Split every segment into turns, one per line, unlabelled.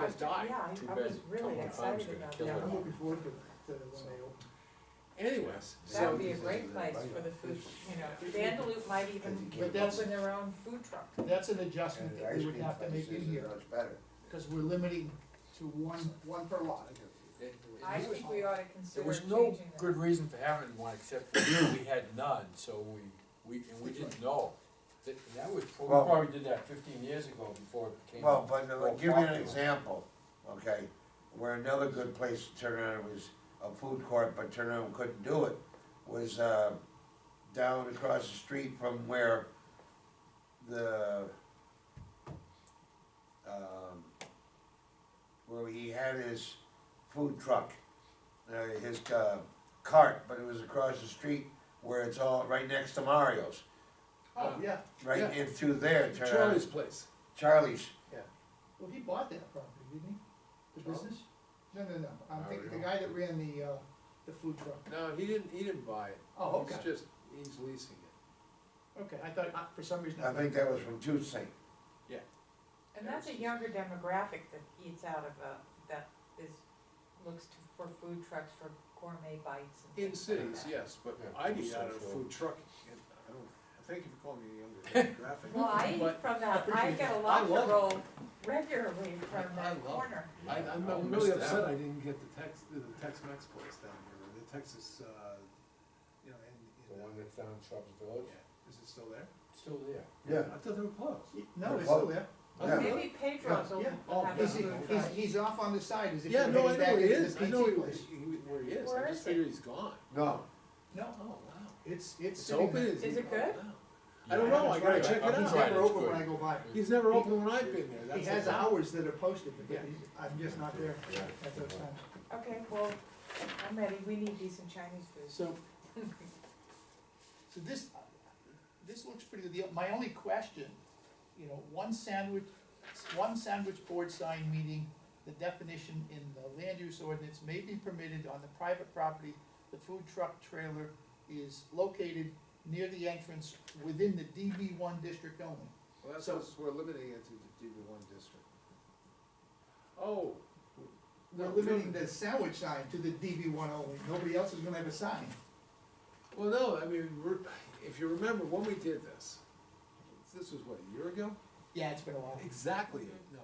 has died.
Yeah, I-
Too
I
bad
was really
Cumberland Farms
excited
gonna
about
kill
that.
it.
I'm looking forward to, to when they open.
Anyways,
That
so,
would be a great place for the food, you know, Vandalup might even
But that's-
open their own food truck.
That's an adjustment that we would have to make in here,
Much better.
because we're limiting to one, one per lot.
It-
I
it was-
think we ought to
There
consider
was no
changing that.
good reason for having one, except we we had none, so we, we, and we didn't know. That, that was, we
Well-
probably did that fifteen years ago before it became.
Well, but uh,
more
give you an
popular.
example, okay, where another good place to turn around was a food court, but turn around couldn't do it, was, uh, down across the street from where the, um, where he had his food truck, uh, his, uh, cart, but it was across the street where it's all, right next to Mario's,
Oh, yeah,
right in through there, turn around-
Charlie's place.
Charlie's,
well, he bought that property, didn't he? The
Charles?
business? No, no, no, I'm
I
thinking,
don't
the guy that ran the, uh, the food truck.
No, he didn't, he didn't buy it.
Oh, okay,
It's just, he's leasing it.
okay, I thought, uh, for some reason.
I think that was from Tuesday.
And that's a younger demographic that eats out of a, that is, looks to, for food trucks for gourmet bites and
In
things like
cities,
that.
yes, but
Yeah,
I
food
eat out of a
central.
food truck. and I don't, thank you for calling me a younger demographic.
Well, I
But
eat from that, I
appreciate
get a
that. I
lot to
love it.
roll regularly from
I love
that
it.
corner.
I,
Yeah,
I'm
I
I'm
missed
really
that
upset
one.
I didn't get the Tex, the Tex-Mex place down here, the Texas, uh, you know,
The
in, in, uh,
one that's down in Shrubs Village,
yeah. is it still there?
still there.
Yeah.
I thought they were closed.
No, it's still there.
Yeah.
Maybe Pedro's will
Yeah.
Oh,
have a
He's,
food
he's,
truck.
he's off on the side, as if
Yeah,
he's
no, I
heading
know
back
where he
into this
is, I know
pizza
he-
place.
he- where he is,
Where
I just
is
figure
it?
he's gone.
No,
No,
Oh, wow.
it's, it's
It's
sitting
open,
there.
Is
is he-
it good?
oh, wow. I don't know, I gotta check it
I'm
out.
He's
trying,
never
it's
open when I
good.
go by.
He's never opened when I've been there,
He
that's.
has
the problem.
hours that are posted, but
Yeah.
he's- I'm just not there
Yeah.
at those times.
Okay, well, I'm ready, we need decent Chinese food.
So, so this, this looks pretty good. The- My only question, you know, one sandwich, one sandwich board sign meaning the definition in the land use ordinance may be permitted on the private property. The food truck trailer is located near the entrance within the DB one district only.
Well, that's,
So-
us- we're limiting it to the DB one district. Oh.
We're
No,
limiting
no.
the sandwich sign to the DB one only. Nobody else is gonna have a sign.
Well, no, I mean, we're- if you remember, when we did this, this was what, a year ago?
Yeah, it's been a while.
Exactly, a- no,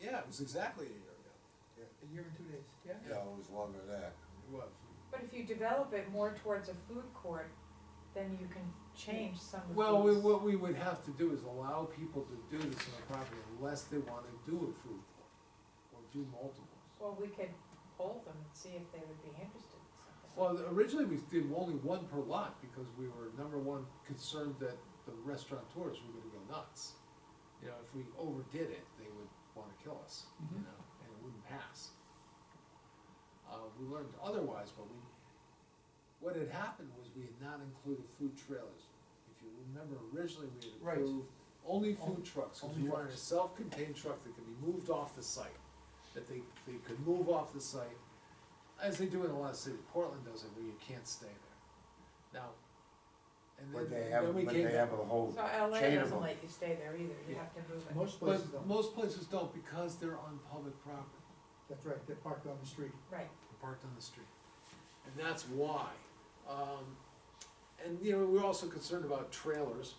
yeah, it was exactly a year ago.
A year and two days, yeah.
no, it was longer than that.
It was.
But if you develop it more towards a food court, then you can change some of the.
Well, we,
foods.
what we would have to do is allow people to do this on the property unless they wanna do a food court, or do multiples.
Well, we could poll them and see if they would be interested in something.
Well, originally we did only one per lot because we were, number one, concerned that the restaurateurs were gonna go nuts. You know, if we overdid it, they would wanna kill us, you
Mhm.
know, and it wouldn't pass. Uh, we learned otherwise, but we, what had happened was we had not included food trailers. If you remember originally, we
Right.
had approved only food trucks, cause
only
we wanted a
trucks.
self-contained truck that could be moved off the site. That they, they could move off the site as they do in a lot of cities, Portland does it where you can't stay there. Now, and
But
then,
they have,
then we
but
came.
they have a whole,
So LA
chain of
doesn't
them.
let you stay there either, you
Yeah.
have to move it.
Most places
But
don't.
most places don't because they're on public property,
That's right, they're parked on the street.
Right,
they're parked on the street. And that's why. Um, and, you know, we're also concerned about trailers,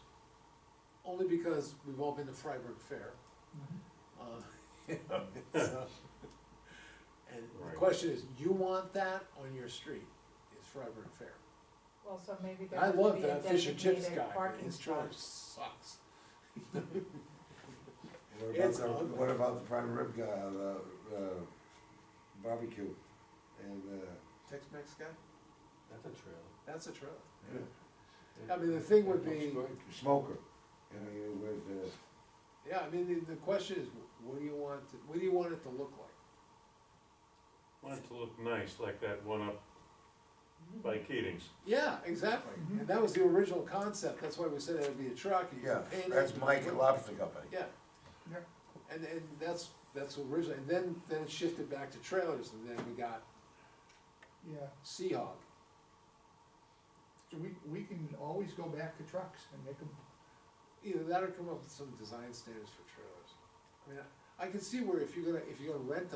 only because we've all been to Freiburg Fair.
Mm-hmm.
Uh, you know, so- And the
Right.
question is, you want that on your street, is Freiburg Fair?
well, so maybe there
I
would
love
be a
that fish and chips
designated
guy, but
parking
his trailer
spot.
sucks.
what about
It's
the,
ugly.
what about the prime rib guy, the, uh, barbecue? And, uh,
Tex-Mex guy?
That's a trail.
That's a trailer. I mean, the thing would be,
smoker, I mean, with, uh,
yeah, I mean, the, the question is, what do you want, to- what do you want it to look like?
Want it to look nice, like that one up by Keating's.
Yeah, exactly, and that was the original concept, that's why we said it would be a truck, and you
yeah,
could paint it.
that's Mike at Lobster Company.
Yeah.
Yeah.
And, and that's, that's originally, and then, then it shifted back to trailers, and then we got
Yeah,
Seahawk.
so we, we can always go back to trucks and make them,
Either that or come up with some design standards for trailers. I mean, I- I can see where if you're gonna, if you're gonna rent